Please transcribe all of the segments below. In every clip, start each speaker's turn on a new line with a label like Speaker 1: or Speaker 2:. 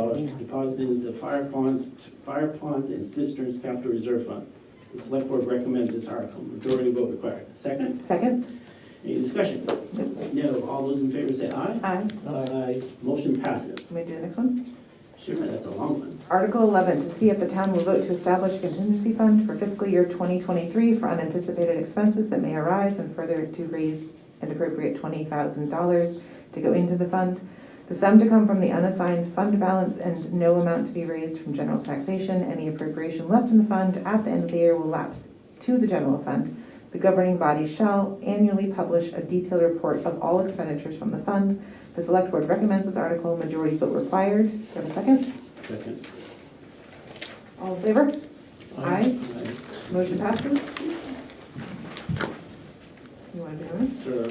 Speaker 1: depo- deposited in the fire ponds, fire ponds and cisterns capital reserve fund. The select board recommends this article, majority vote required. Second,
Speaker 2: Second?
Speaker 1: any discussion? No, all those in favor say aye.
Speaker 2: Aye.
Speaker 1: Aye. Motion passes.
Speaker 2: Can we do the next one?
Speaker 1: Sure, that's a long one.
Speaker 2: Article 11, to see if the town will vote to establish a contingency fund for fiscal year 2023 for unanticipated expenses that may arise and further to raise an appropriate $20,000 to go into the fund. The sum to come from the unassigned fund balance and no amount to be raised from general taxation. Any appropriation left in the fund at the end of the year will lapse to the general fund. The governing body shall annually publish a detailed report of all expenditures from the fund. The select board recommends this article, majority vote required. Do I have a second?
Speaker 1: Second.
Speaker 2: All in favor? Aye.
Speaker 1: Aye.
Speaker 2: Motion passes. You want to do it?
Speaker 1: Sure.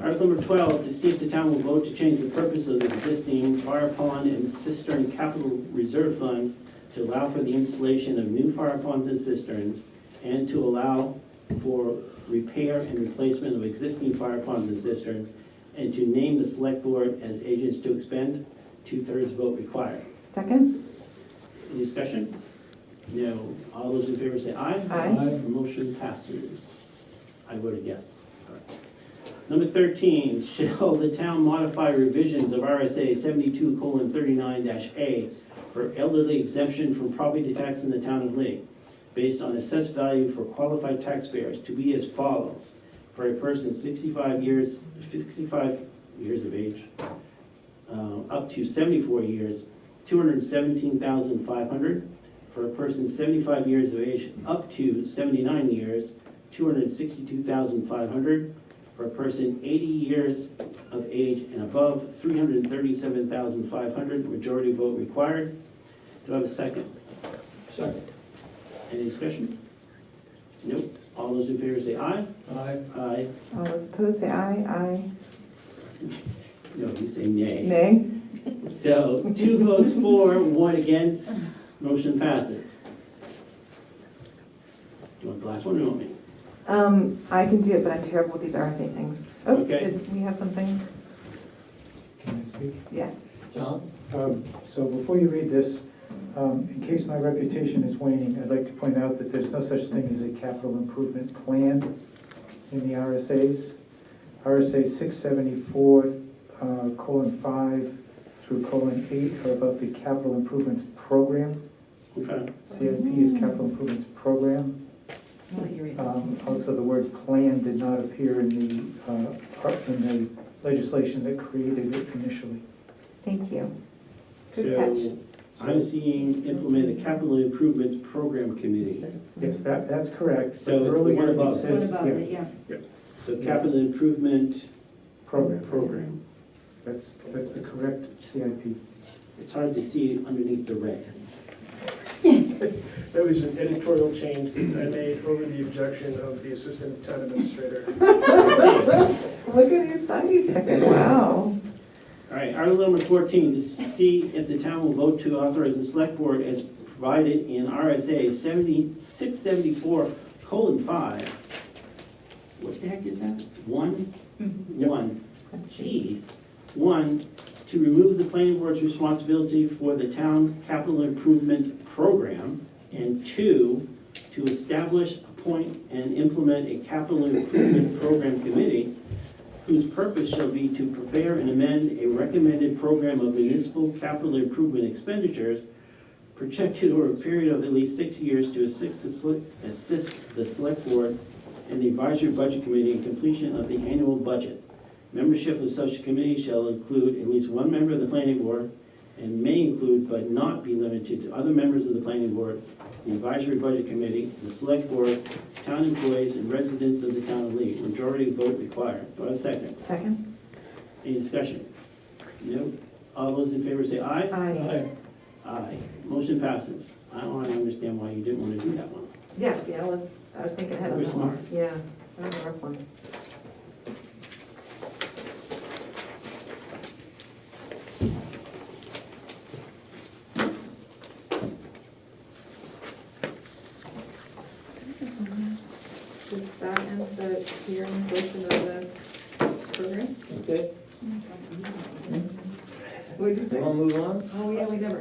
Speaker 1: Article number 12, to see if the town will vote to change the purpose of the existing fire pond and cistern capital reserve fund to allow for the installation of new fire ponds and cisterns and to allow for repair and replacement of existing fire ponds and cisterns and to name the select board as agents to expend, two-thirds vote required.
Speaker 2: Second?
Speaker 1: Any discussion? No. All those in favor say aye.
Speaker 2: Aye.
Speaker 1: Motion passes. I voted yes. All right. Number 13, shall the town modify revisions of RSA 72:39-A for elderly exemption from property tax in the town of Lee, based on assessed value for qualified taxpayers to be as follows. For a person 65 years, 65 years of age, uh, up to 74 years, 217,500. For a person 75 years of age up to 79 years, 262,500. For a person 80 years of age and above, 337,500, majority vote required. Do I have a second?
Speaker 3: Second.
Speaker 1: Any discussion? Nope. All those in favor say aye.
Speaker 3: Aye.
Speaker 1: Aye.
Speaker 2: All those opposed, say aye. Aye.
Speaker 1: No, you say nay.
Speaker 2: Nay?
Speaker 1: So two votes for, one against, motion passes. Do you want the last one or you want me?
Speaker 2: Um, I can do it, but I'm terrible with these RSA things. Oh,
Speaker 1: Okay.
Speaker 2: did we have something?
Speaker 4: Can I speak?
Speaker 2: Yeah.
Speaker 3: John?
Speaker 4: Um, So before you read this, um, in case my reputation is waning, I'd like to point out that there's no such thing as a capital improvement plan in the RSA's. RSA 674, uh, colon 5 through colon 8 are about the capital improvements program.
Speaker 1: Okay.
Speaker 4: CIP is capital improvements program. Um, Also, the word "plan" did not appear in the, uh, part- in the legislation that created it initially.
Speaker 2: Thank you. Good
Speaker 1: So I'm seeing implement a capital improvements program committee.
Speaker 4: Yes, that, that's correct.
Speaker 1: So it's the
Speaker 4: Earlier
Speaker 1: one
Speaker 4: it
Speaker 1: above.
Speaker 4: says-
Speaker 5: What about
Speaker 4: yeah,
Speaker 5: it, yeah.
Speaker 1: So capital improvement
Speaker 4: Program,
Speaker 1: program.
Speaker 4: that's, that's the correct CIP.
Speaker 1: It's hard to see underneath the red.
Speaker 6: That was an editorial change that I made over the objection of the assistant town administrator.
Speaker 2: Look at your science second. Wow.
Speaker 1: All right, article number fourteen, to see if the town will vote to authorize the select board as provided in RSA seventy, six seventy-four colon five. What the heck is that? One? One. Jeez. One, to remove the planning board's responsibility for the town's capital improvement program. And two, to establish, appoint, and implement a capital improvement program committee whose purpose shall be to prepare and amend a recommended program of municipal capital improvement expenditures projected over a period of at least six years to assist the, sele- assist the select board and the advisory budget committee in completion of the annual budget. Membership of such committee shall include at least one member of the planning board and may include but not be limited to other members of the planning board, the advisory budget committee, the select board, town employees, and residents of the town of Lee. Majority vote required. Do I have a second?
Speaker 2: Second?
Speaker 1: Any discussion? No? All those in favor say aye?
Speaker 2: Aye.
Speaker 1: Aye. Motion passes. I don't wanna understand why you didn't want to do that one.
Speaker 2: Yes, yeah, I was, I was thinking ahead of
Speaker 1: We're
Speaker 2: that one.
Speaker 1: smart.
Speaker 2: Yeah. That was a rough one. Does that end the hearing portion of the program?
Speaker 3: Okay,
Speaker 5: Oh,
Speaker 2: What did you
Speaker 3: we
Speaker 2: say?
Speaker 3: will move on?
Speaker 2: Oh,
Speaker 5: yeah, we never,